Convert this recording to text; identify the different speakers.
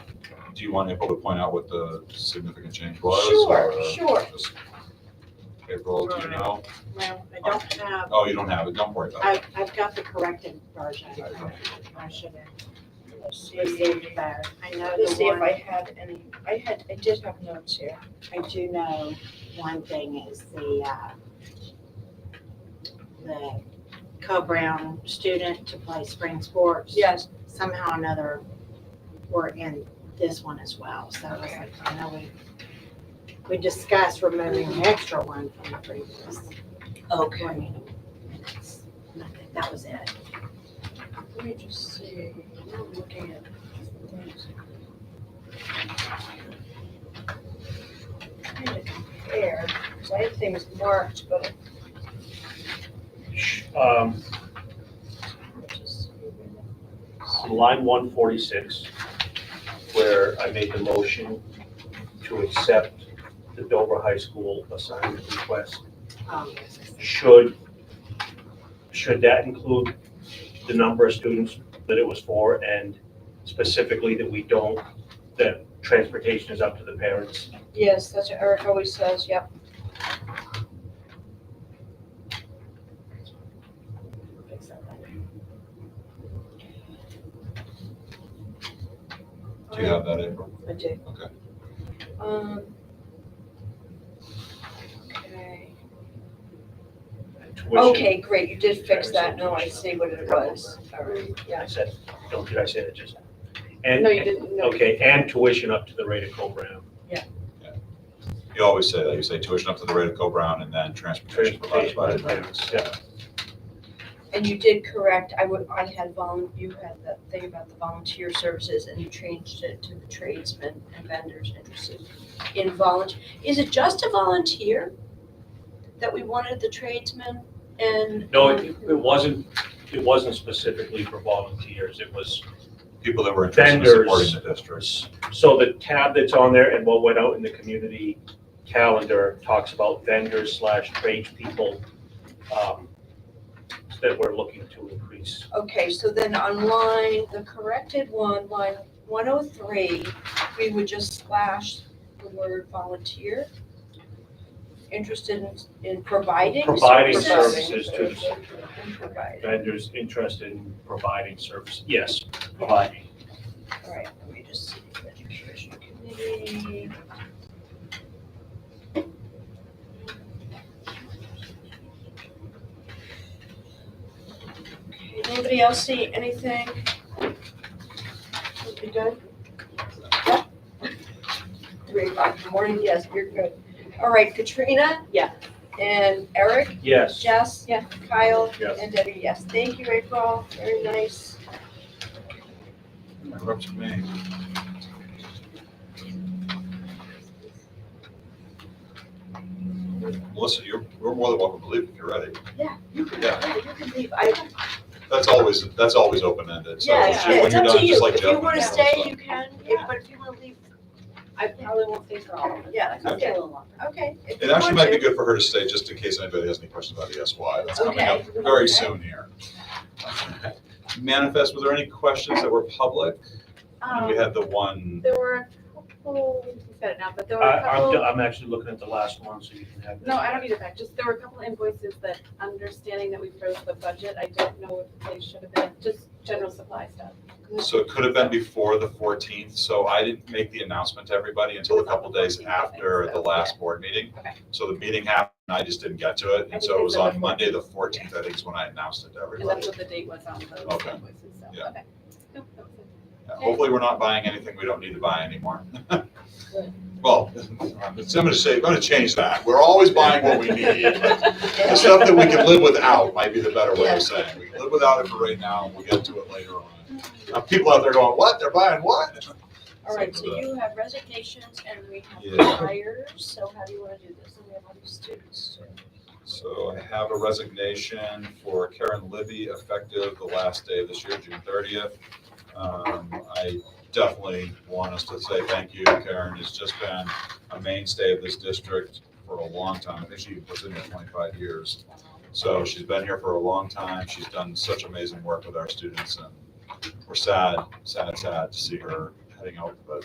Speaker 1: do you want April to point out what the significant change was?
Speaker 2: Sure,
Speaker 1: or, uh,
Speaker 2: sure.
Speaker 1: just- April, do you know?
Speaker 2: Well, I don't have,
Speaker 1: Oh, you don't have it, don't worry about it.
Speaker 2: I, I've got the corrected version. I should
Speaker 3: Let's see,
Speaker 2: have received that. I know
Speaker 3: let's
Speaker 2: the
Speaker 3: see if
Speaker 2: one,
Speaker 3: I had any, I had, I did have notes here.
Speaker 2: I do know one thing is the, uh, the Co-Brown student to play spring sports.
Speaker 3: Yes,
Speaker 2: Somehow or another, we're in this one as well. So I was like, I know we, we discussed removing an extra one from the previous.
Speaker 3: okay.
Speaker 2: That was it.
Speaker 3: Let me just see, I'm looking at. things. Trying to compare, 'cause I had things marked, but.
Speaker 4: Um,
Speaker 3: let's just see where
Speaker 4: on line one forty-six, where I made the motion to accept the Dover High School assignment request,
Speaker 2: Um, yes, I see.
Speaker 4: should, should that include the number of students that it was for and specifically that we don't, that transportation is up to the parents?
Speaker 3: that- Yes, that's what Eric always says, yep.
Speaker 2: Fix that later.
Speaker 1: Do you have that, April?
Speaker 3: I do.
Speaker 1: Okay.
Speaker 3: Um. Okay.
Speaker 4: Tuition-
Speaker 3: Okay, great, you did fix that, now I see what it was, all right,
Speaker 4: I
Speaker 3: yeah.
Speaker 4: said, no, did I say that just? And-
Speaker 3: No, you didn't, no.
Speaker 4: Okay, and tuition up to the rate of co-brown.
Speaker 1: You always say that, you say tuition up to the rate of Co-Brown and then transportation provided by the parents.
Speaker 4: Yeah.
Speaker 3: And you did correct, I would, I had volun, you had that thing about the volunteer services and you changed it to the tradesmen and vendors interested in volunteer. Is it just a volunteer that we wanted the tradesmen and?
Speaker 4: No, it, it wasn't, it wasn't specifically for volunteers, it was,
Speaker 1: People that were interested in supporting the district.
Speaker 4: so the tab that's on there and what went out in the community calendar talks about vendors slash tradespeople um, that we're looking to increase.
Speaker 3: Okay, so then on line, the corrected one, line one oh three, we would just slash the word volunteer. Interested in, in providing services?
Speaker 4: Providing services to the
Speaker 3: In providing,
Speaker 4: vendors interested in providing service, yes, providing.
Speaker 3: all right, let me just see, education committee. Okay, Anybody else see anything? Would be good? Yeah. Three o'clock in the morning, yes, you're good. All right, Katrina?
Speaker 2: Yeah.
Speaker 3: And Eric,
Speaker 4: Yes.
Speaker 3: Jess?
Speaker 2: Yeah.
Speaker 3: Kyle?
Speaker 4: Yes.
Speaker 3: And Debbie, yes. Thank you, April, very nice.
Speaker 1: You're up to me. Melissa, you're, you're more than welcome to leave if you're ready.
Speaker 3: Yeah, you can,
Speaker 1: Yeah.
Speaker 3: yeah, you can leave, I,
Speaker 1: That's always, that's always open-ended, so
Speaker 3: Yeah,
Speaker 1: when
Speaker 2: it's-
Speaker 1: you're
Speaker 3: it's up to
Speaker 1: done,
Speaker 3: you.
Speaker 1: just like
Speaker 3: If you
Speaker 1: Jeff.
Speaker 3: wanna
Speaker 1: and
Speaker 3: stay,
Speaker 1: stuff.
Speaker 2: You can, if, but if you want to leave, I probably won't stay for all of it.
Speaker 3: yeah,
Speaker 2: I'll stay a
Speaker 3: okay,
Speaker 2: little longer.
Speaker 3: okay. if
Speaker 1: It
Speaker 3: you
Speaker 1: actually
Speaker 3: want
Speaker 1: might be
Speaker 3: to.
Speaker 1: good for her to stay, just in case anybody has any questions about ESY. That's coming up
Speaker 3: Okay.
Speaker 1: very
Speaker 3: Okay.
Speaker 1: soon here. Manifest, were there any questions that were public? And We
Speaker 5: Um,
Speaker 1: had the one,
Speaker 5: there were a couple, we said it now, but there were
Speaker 4: I,
Speaker 5: a
Speaker 4: I'm,
Speaker 5: couple,
Speaker 4: I'm actually looking at the last one, so you can have that.
Speaker 5: no, I don't need it back, just there were a couple invoices that, understanding that we froze the budget, I don't know if they should have been, just general supply stuff.
Speaker 1: so it could have been before the 14th, so I didn't make the announcement to everybody until a couple days after the last board meeting.
Speaker 5: Okay.
Speaker 1: So the meeting happened, and I just didn't get to it,
Speaker 5: I
Speaker 1: and
Speaker 5: think
Speaker 1: so it was
Speaker 5: it's on the
Speaker 1: on Monday, the 14th, I think is when I announced it to
Speaker 5: And
Speaker 1: everybody.
Speaker 5: that's what the date was on those
Speaker 1: Okay.
Speaker 5: invoices, so,
Speaker 1: Yeah.
Speaker 5: okay. Nope, that was it.
Speaker 1: Yeah, Hopefully, we're not buying anything we don't need to buy anymore. Well, I'm gonna say, I'm gonna change that. We're always buying what we need. but The stuff that we can live without might be the better way
Speaker 3: Yeah.
Speaker 1: of saying. We can live without it for right now, and we'll get to it later on. Now, people out there going, what? They're buying what?
Speaker 3: All right, so you have resignations and we
Speaker 1: Yeah.
Speaker 3: have hires, so how do you wanna do this? And we have all these students.
Speaker 1: So I have a resignation for Karen Libby effective the last day of this year, June thirtieth. Um, I definitely want us to say thank you. Karen has just been a mainstay of this district for a long time. I think she was in here twenty-five years. So she's been here for a long time. She's done such amazing work with our students and we're sad, sad, sad to see her heading out, but